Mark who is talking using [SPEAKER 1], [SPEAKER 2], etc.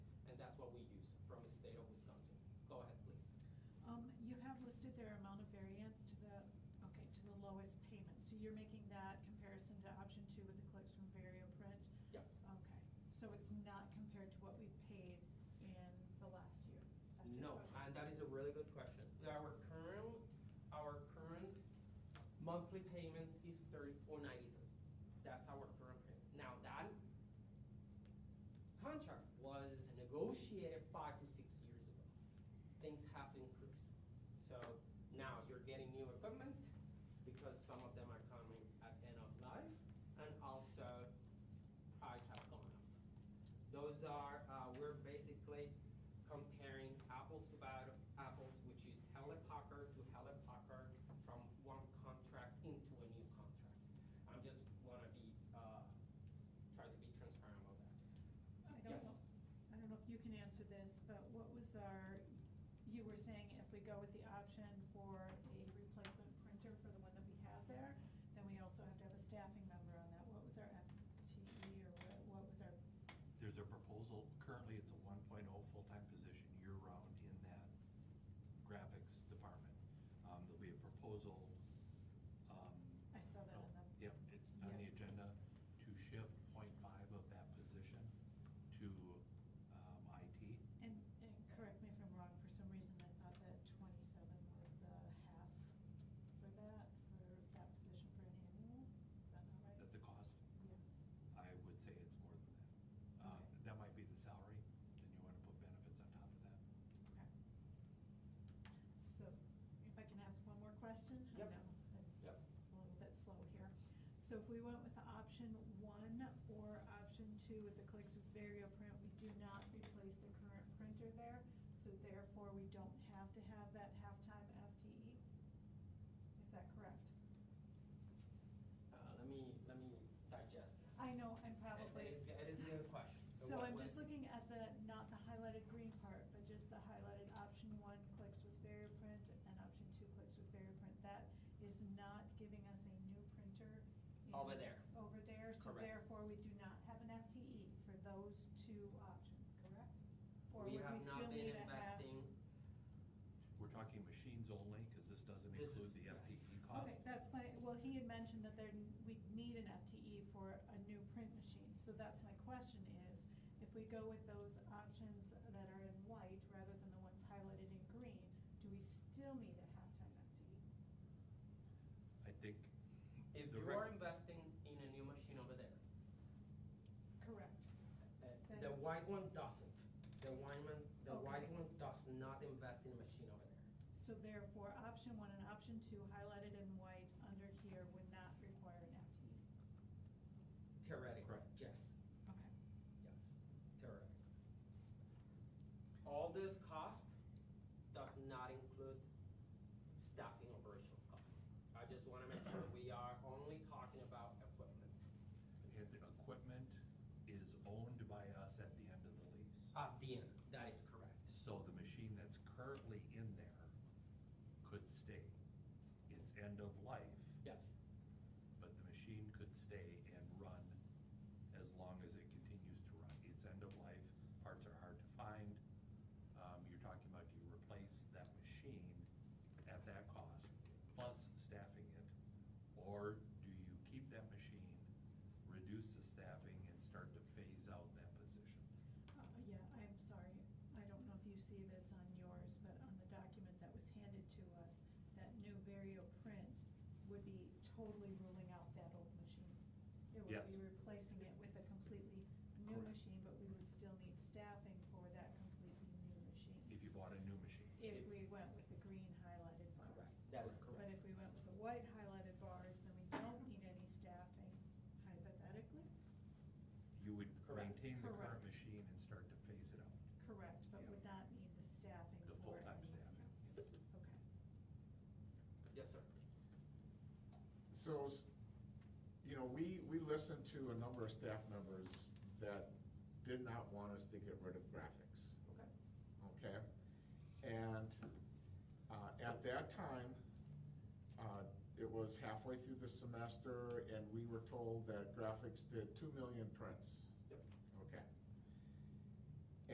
[SPEAKER 1] Go ahead, please.
[SPEAKER 2] Um, you have listed their amount of variance to the, okay, to the lowest payment, so you're making that comparison to option two with the clicks from VarioPrint?
[SPEAKER 1] Yes.
[SPEAKER 2] Okay, so it's not compared to what we paid in the last year? That's just
[SPEAKER 1] No,
[SPEAKER 2] what-
[SPEAKER 1] and that is a really good question. Our current, our current monthly payment is thirty-four ninety-three. That's our current payment. Now, that contract was negotiated five to six years ago. Things have increased. So now you're getting new equipment because some of them are coming at end of life and also price have gone up. Those are, uh, we're basically comparing apples to bad- apples, which is helicopter to helicopter from one contract into a new contract. I'm just wanna be, uh, try to be transparent about that.
[SPEAKER 2] I don't know,
[SPEAKER 1] Yes.
[SPEAKER 2] I don't know if you can answer this, but what was our, you were saying if we go with the option for a replacement printer for the one that we have there, then we also have to have a staffing member on that, what was our FTE or what- what was our
[SPEAKER 3] There's a proposal, currently it's a one oh full-time position year-round in that graphics department. Um, there'll be a proposal, um.
[SPEAKER 2] I saw that on the-
[SPEAKER 3] Yep, it's on the
[SPEAKER 2] Yeah.
[SPEAKER 3] agenda to shift 0.5 of that position to, um, IT.
[SPEAKER 2] And, and correct me if I'm wrong, for some reason I thought that twenty-seven was the half for that, for that position for an annual, is that not right?
[SPEAKER 3] That the cost,
[SPEAKER 2] Yes,
[SPEAKER 3] I would say it's more than that. Uh,
[SPEAKER 2] Okay.
[SPEAKER 3] that might be the salary, then you wanna put benefits on top of that.
[SPEAKER 2] okay. So, if I can ask one more question? I
[SPEAKER 1] Yep.
[SPEAKER 2] know I'm
[SPEAKER 1] Yep.
[SPEAKER 2] A little bit slow here. So if we went with the option one or option two with the clicks with VarioPrint, we do not replace the current printer there, so therefore we don't have to have that halftime FTE? Is that correct?
[SPEAKER 1] Uh, let me, let me digest this.
[SPEAKER 2] I know, I'm
[SPEAKER 1] It is,
[SPEAKER 2] probably,
[SPEAKER 1] it is a good question.
[SPEAKER 2] so
[SPEAKER 1] what-
[SPEAKER 2] I'm
[SPEAKER 1] what-
[SPEAKER 2] just looking at the, not the highlighted green part, but just the highlighted option one clicks with VarioPrint and option two clicks with VarioPrint. That is not giving us a new printer. in-
[SPEAKER 1] Over there.
[SPEAKER 2] Over there, so
[SPEAKER 1] Correct.
[SPEAKER 2] therefore we do not have an FTE for those two options, correct? Or
[SPEAKER 1] We
[SPEAKER 2] would
[SPEAKER 1] have
[SPEAKER 2] still
[SPEAKER 1] not been
[SPEAKER 2] need to have-
[SPEAKER 1] investing,
[SPEAKER 3] We're talking machines only, cause this doesn't
[SPEAKER 1] This is-
[SPEAKER 3] include the
[SPEAKER 1] yes.
[SPEAKER 3] FTE cost.
[SPEAKER 2] Okay, that's my, well, he had mentioned that there, we'd need an FTE for a new print machine, so that's my question is, if we go with those options that are in white rather than the ones highlighted in green, do we still need a halftime E? FTE?
[SPEAKER 3] I think.
[SPEAKER 1] if
[SPEAKER 3] the
[SPEAKER 1] you
[SPEAKER 3] rec-
[SPEAKER 1] are investing in a new machine over there,
[SPEAKER 2] Correct.
[SPEAKER 1] uh, the white one doesn't. The white one, the
[SPEAKER 2] Okay.
[SPEAKER 1] white one does not invest in a machine over there.
[SPEAKER 2] So therefore, option one and option two highlighted in white under here would not require an E. FTE.
[SPEAKER 1] Theoretically.
[SPEAKER 3] Correct.
[SPEAKER 1] Yes,
[SPEAKER 2] Okay.
[SPEAKER 1] yes, theoretically. All this cost does not include staffing operational costs. I just wanna make sure we are only talking about equipment.
[SPEAKER 3] And equipment is owned by us at the end of the lease.
[SPEAKER 1] At the end, that is correct.
[SPEAKER 3] So the machine that's currently in there could stay. It's end of life,
[SPEAKER 1] Yes.
[SPEAKER 3] but the machine could stay and run as long as it continues to run. It's end of life, parts are hard to find. Um, you're talking about do you replace that machine at that cost, plus staffing it? Or do you keep that machine, reduce the staffing, and start to phase out that position?
[SPEAKER 2] Uh, Yeah, I'm sorry, I don't know if you see this on yours, but on the document that was handed to us, that new Vario print would be totally ruling out that old machine. It would be
[SPEAKER 3] Yes.
[SPEAKER 2] replacing it with a completely new
[SPEAKER 3] Correct.
[SPEAKER 2] machine, but we would still need staffing for that completely new machine.
[SPEAKER 3] If you bought a new machine?
[SPEAKER 2] If we went with the green highlighted bars.
[SPEAKER 1] Correct, that is
[SPEAKER 2] But
[SPEAKER 1] correct.
[SPEAKER 2] if we went with the white highlighted bars, then we don't need any staffing hypothetically.
[SPEAKER 3] You would
[SPEAKER 1] Correct.
[SPEAKER 3] maintain the current
[SPEAKER 2] Correct.
[SPEAKER 3] machine and start to phase it out.
[SPEAKER 2] Correct, but would
[SPEAKER 3] Yeah.
[SPEAKER 2] not need the staffing
[SPEAKER 3] The
[SPEAKER 2] for
[SPEAKER 3] full-time
[SPEAKER 2] anything
[SPEAKER 3] staffing,
[SPEAKER 2] else. Okay.
[SPEAKER 3] yeah.
[SPEAKER 1] Yes, sir.
[SPEAKER 4] So, s- you know, we, we listened to a number of staff members that did not want us to get rid of graphics,
[SPEAKER 1] Okay.
[SPEAKER 4] okay? And uh, at that time, uh, it was halfway through the semester, and we were told that graphics did two million prints.